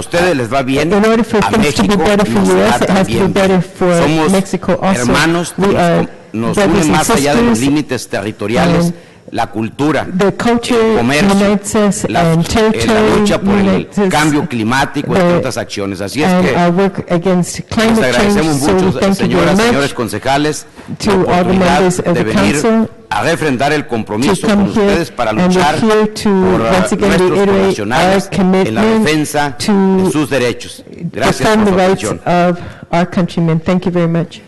ustedes les va bien, In order for a things to be México better for nos US, va it has to be también. better for Somos Mexico also. hermanos, We are nos, nos brothers une and más allá de los sisters. límites territoriales, Um, la cultura, The culture el comercio, unites us la, and eh, la territory lucha por el unites us cambio climático, the- entre otras acciones. Así es and que our work against les climate change. agradecemos So we mucho, thank you very señoras, señores much concejales, to la all the oportunidad members of de the venir council a refrendar el to compromiso con come here. ustedes para And luchar we're here to por eh, once again nuestros reiterate our connacionales en la commitment defensa de to sus derechos. Gracias por defend the su rights atención. of our countrymen. Thank you very much.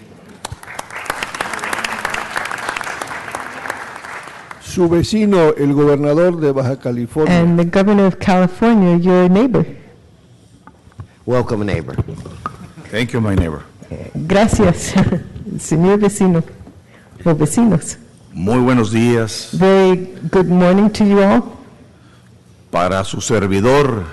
Su vecino, el gobernador de Baja California. And the governor of California, your neighbor. Welcome, neighbor. Thank you, my neighbor. Gracias, señor vecino o vecinos. Muy buenos días Very good morning to you all. para su servidor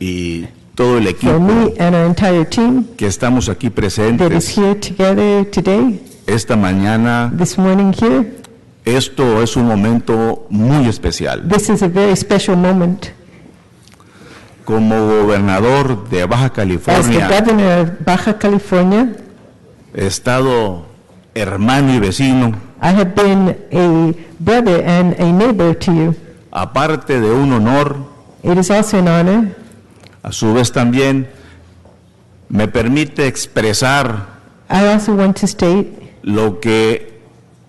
y todo el For equipo me and our entire team que estamos aquí that is presentes here together today, esta mañana. this morning here, Esto es un momento muy especial. this is a very special moment. Como gobernador de Baja As the California, governor of Baja California, estado hermano y vecino, I have been a brother and a neighbor to you. aparte de un honor, It is also an honor, a su vez también me permite expresar I also want to state lo que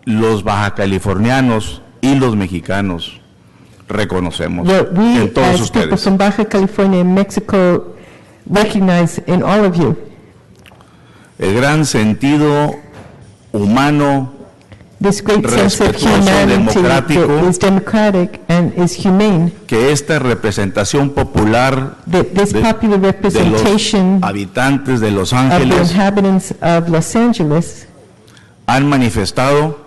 los bajacalifornianos y los mexicanos reconocemos what we en todos as people ustedes. from Baja California and Mexico recognize in all of you. El gran sentido humano this great sense of Respetuoso, humanity that democrático. is democratic and is humane, que esta representación popular that this de, popular de los representation of habitantes de Los the Ángeles inhabitants of Los Angeles han manifestado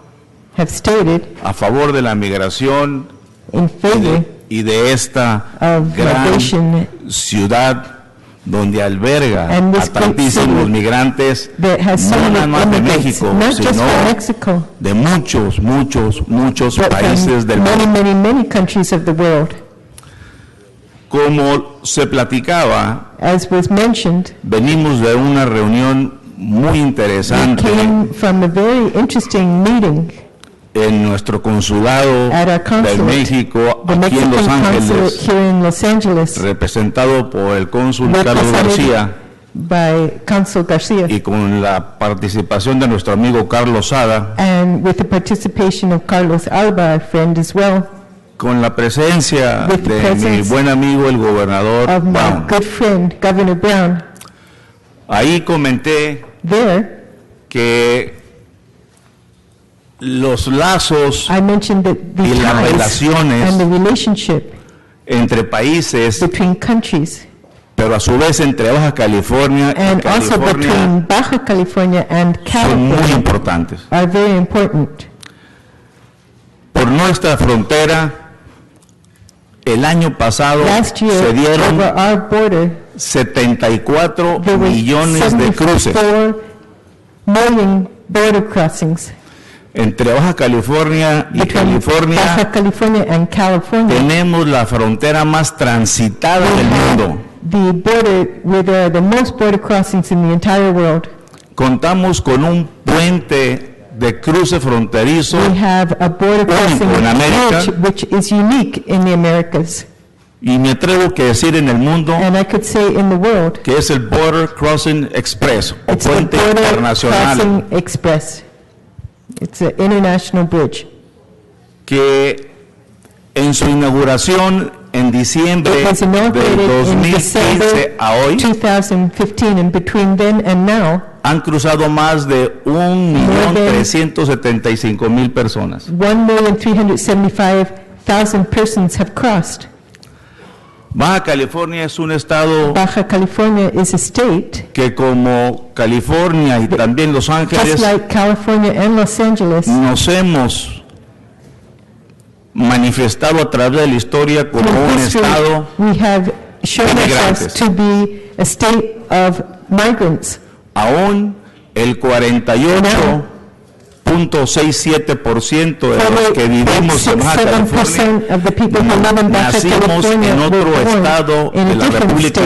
have stated a favor de la migración in y favor de- y de esta of gran migration ciudad donde alberga And a this great tantísimos city migrantes, that has so no many nada más de immigrants, México, not just from sino Mexico, de muchos, muchos, muchos but países from del many, mundo. many, many countries of the world. Como se platicaba, As was mentioned, venimos de una reunión muy we interesante came from a very interesting meeting en nuestro consulado At our de consulate, México, the aquí Mexican en Los consulate Ángeles, here in Los Angeles, representado por el cónsul Carlos represented García by Consul Garcia. y con la participación de nuestro amigo Carlos Sada, and with the participation of Carlos Alba, our friend as well, con la presencia With the de mi presence buen amigo el gobernador of my Brown. good friend, Governor Brown. Ahí comenté There, que los lazos I mentioned that the Y las ties relaciones and the relationship entre países, between countries, pero a su vez entre Baja California y and also California, between Baja California and son muy California, importantes. are very important. Por nuestra frontera, el año pasado Last year, se over dieron our border, 74 there were millones de cruces 74 million border crossings entre Baja California y between California. Baja California and California. Tenemos la frontera más transitada del mundo. the border where there are the most border crossings in the entire world. Contamos con un puente de cruce fronterizo We have a border crossing en América. bridge which is unique in the Americas, y me atrevo que decir en el mundo and I could say in the world. que es el Border Crossing Express o It's the puente border internacional crossing express. It's an international bridge. que en su inauguración en diciembre It was del inaugurated in 2015 December a hoy 2015, and between then and now, han cruzado más de than- 1.375.000 personas. 1,375,000 persons have crossed. Baja California es un estado Baja California is a state que como California y también Los Just Ángeles like California and Los Angeles, nos hemos manifestado a través de la historia como through un history, estado we have shown de ourselves migrantes. to be a state of migrants. aún el 48% 1.67% de los que vivimos en Baja California 47% of the people who live in Baja nacimos California en were otro born estado in a de la different República state.